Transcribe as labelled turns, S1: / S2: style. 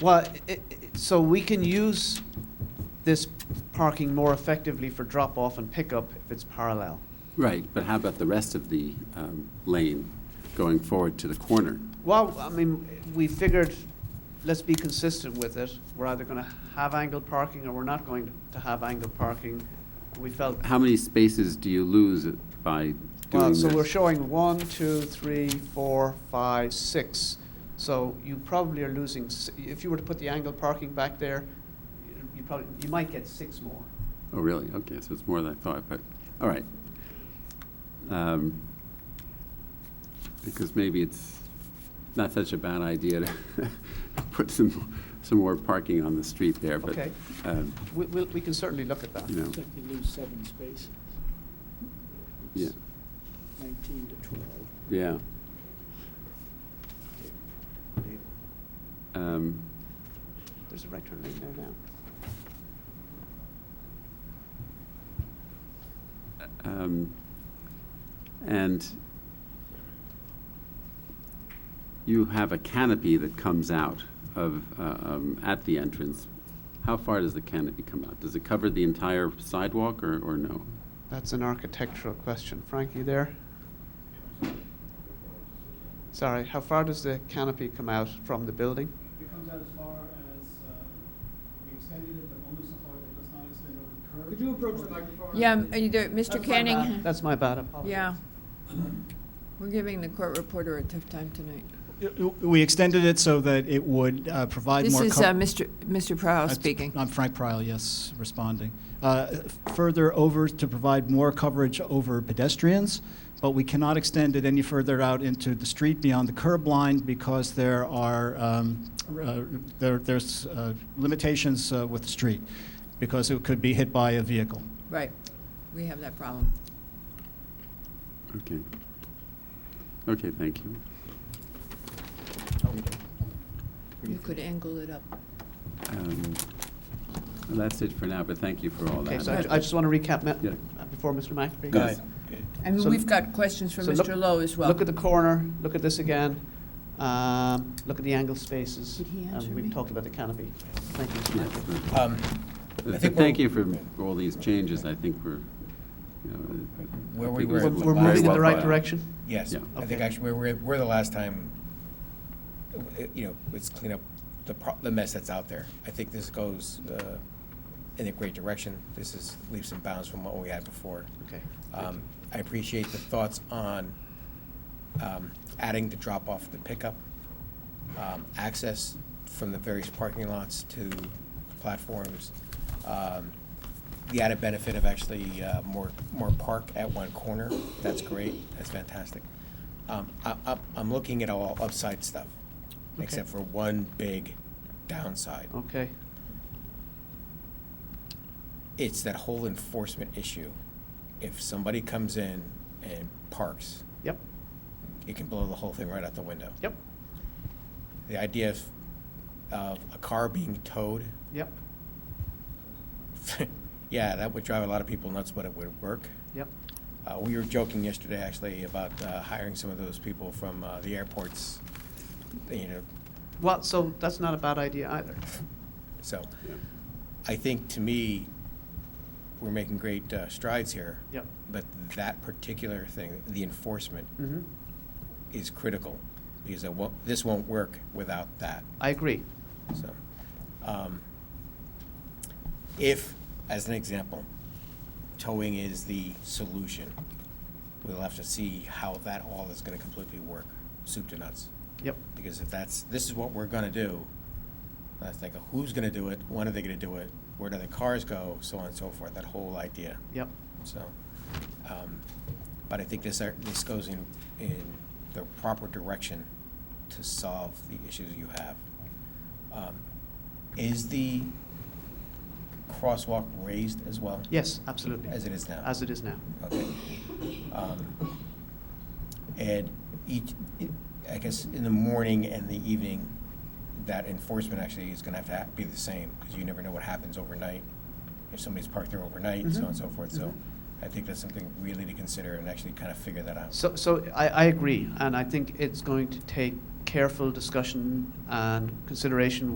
S1: Well, i- i- so we can use this parking more effectively for drop-off and pickup if it's parallel.
S2: Right, but how about the rest of the um, lane going forward to the corner?
S1: Well, I mean, we figured, let's be consistent with it. We're either going to have angled parking or we're not going to have angled parking. We felt,
S2: How many spaces do you lose by doing
S1: well,
S2: this?
S1: so we're showing one, two, three, four, five, six. So you probably are losing, s- if you were to put the angled parking back there, you probably, you might get six more.
S2: Oh, really? Okay, so it's more than I thought, but, all right. Um, Because maybe it's not such a bad idea to put some, some more parking on the street there, but,
S1: Okay.
S2: um,
S1: We, we'll- we can certainly look at that.
S2: you know,
S3: Looks like you lose seven spaces,
S2: yeah,
S3: nineteen to twelve.
S2: yeah. Um,
S1: There's a right turn lane there now.
S2: um, And you have a canopy that comes out of, uh, um, at the entrance. How far does the canopy come out? Does it cover the entire sidewalk or, or no?
S1: That's an architectural question. Frank, you there? Sorry, how far does the canopy come out from the building?
S4: It comes out as far as, uh, we extended it, but only so far that it does not extend over the curb.
S5: Could you approach the microphone?
S6: Yeah, m- uh, you do- Mr.
S5: That's my bad.
S6: Canning,
S1: That's my bad, I apologize.
S6: yeah. We're giving the court reporter a tough time tonight.
S4: Uh, We extended it so that it would uh, provide
S6: This
S4: more.
S6: is
S4: cov-
S6: uh, Mr. Mr. Prowl
S4: That's-
S6: speaking.
S4: I'm Frank Pryle, yes, responding. Uh, Further over to provide more coverage over pedestrians, but we cannot extend it any further out into the street beyond the curb line because there are, um, uh, there- there's uh, limitations uh, with the street, because it could be hit by a vehicle.
S6: Right, we have that problem.
S2: Okay. Okay, thank you.
S6: You could angle it up.
S2: Um, well, That's it for now, but thank you for all
S1: Okay,
S2: that.
S1: so I I just want to recap, ma-
S2: Yeah.
S1: uh, before Mr. McAfee.
S2: Go ahead.
S6: And
S1: So-
S6: we've got questions from
S1: so look-
S6: Mr. Lowe as well.
S1: Look at the corner, look at this again, um, look at the angled spaces.
S6: Did he answer
S1: And we've
S6: me?
S1: talked about the canopy. Thank you, Mr.
S2: Yes,
S1: McAfee.
S2: right.
S7: Um, I think
S2: Thank
S7: we're-
S2: you for all these changes, I think we're, you know. I
S7: Where we
S2: think it was
S7: were-
S1: We're
S7: Very
S1: we're
S7: well
S1: moving in the right
S2: planned.
S1: direction?
S7: Yes,
S2: Yeah.
S7: I think
S1: Okay.
S7: actually, we're, we're the last time, uh, you know, let's clean up the, pro- the mess that's out there. I think this goes uh, in a great direction. This is leaps and bounds from what we had before.
S1: Okay.
S7: Um, I appreciate the thoughts on um, adding the drop-off, the pickup, um, access from the various parking lots to platforms, um, the added benefit of actually uh, more, more park at one corner, that's great, that's fantastic. Um, I- I'm I'm looking at all upside stuff,
S1: Okay.
S7: except for one big downside.
S1: Okay,
S7: It's that whole enforcement issue. If somebody comes in and parks,
S1: yep,
S7: it can blow the whole thing right out the window.
S1: yep,
S7: The idea of, of a car being towed,
S1: yep,
S7: yeah, that would drive a lot of people nuts, but it would work.
S1: yep,
S7: Uh, we were joking yesterday, actually, about uh, hiring some of those people from uh, the airports, you know,
S1: well, so that's not a bad idea either.
S7: so.
S2: Yeah.
S7: I think, to me, we're making great uh, strides here.
S1: Yep.
S7: But that particular thing, the enforcement,
S6: Mm-hmm.
S1: Mhm.
S7: is critical, because it won't, this won't work without that.
S1: I agree.
S7: So, um, if, as an example, towing is the solution, we'll have to see how that all is gonna completely work, soup to nuts.
S1: Yep,
S7: Because if that's, this is what we're gonna do, I was thinking, who's gonna do it, when are they gonna do it, where do the cars go, so on and so forth, that whole idea.
S1: yep.
S7: So, um, but I think this, are- this goes in, in the proper direction to solve the issues you have. Um, Is the crosswalk raised as well?
S1: Yes, absolutely.
S7: As it is now?
S1: As it is now.
S7: Okay. Um, And each, I guess in the morning and the evening, that enforcement actually is gonna have to ha- be the same, because you never know what happens overnight, if somebody's parked there overnight, so on and so forth, so I think that's something really to consider and actually kind of figure that out.
S1: So, so I, I agree, and I think it's going to take careful discussion and consideration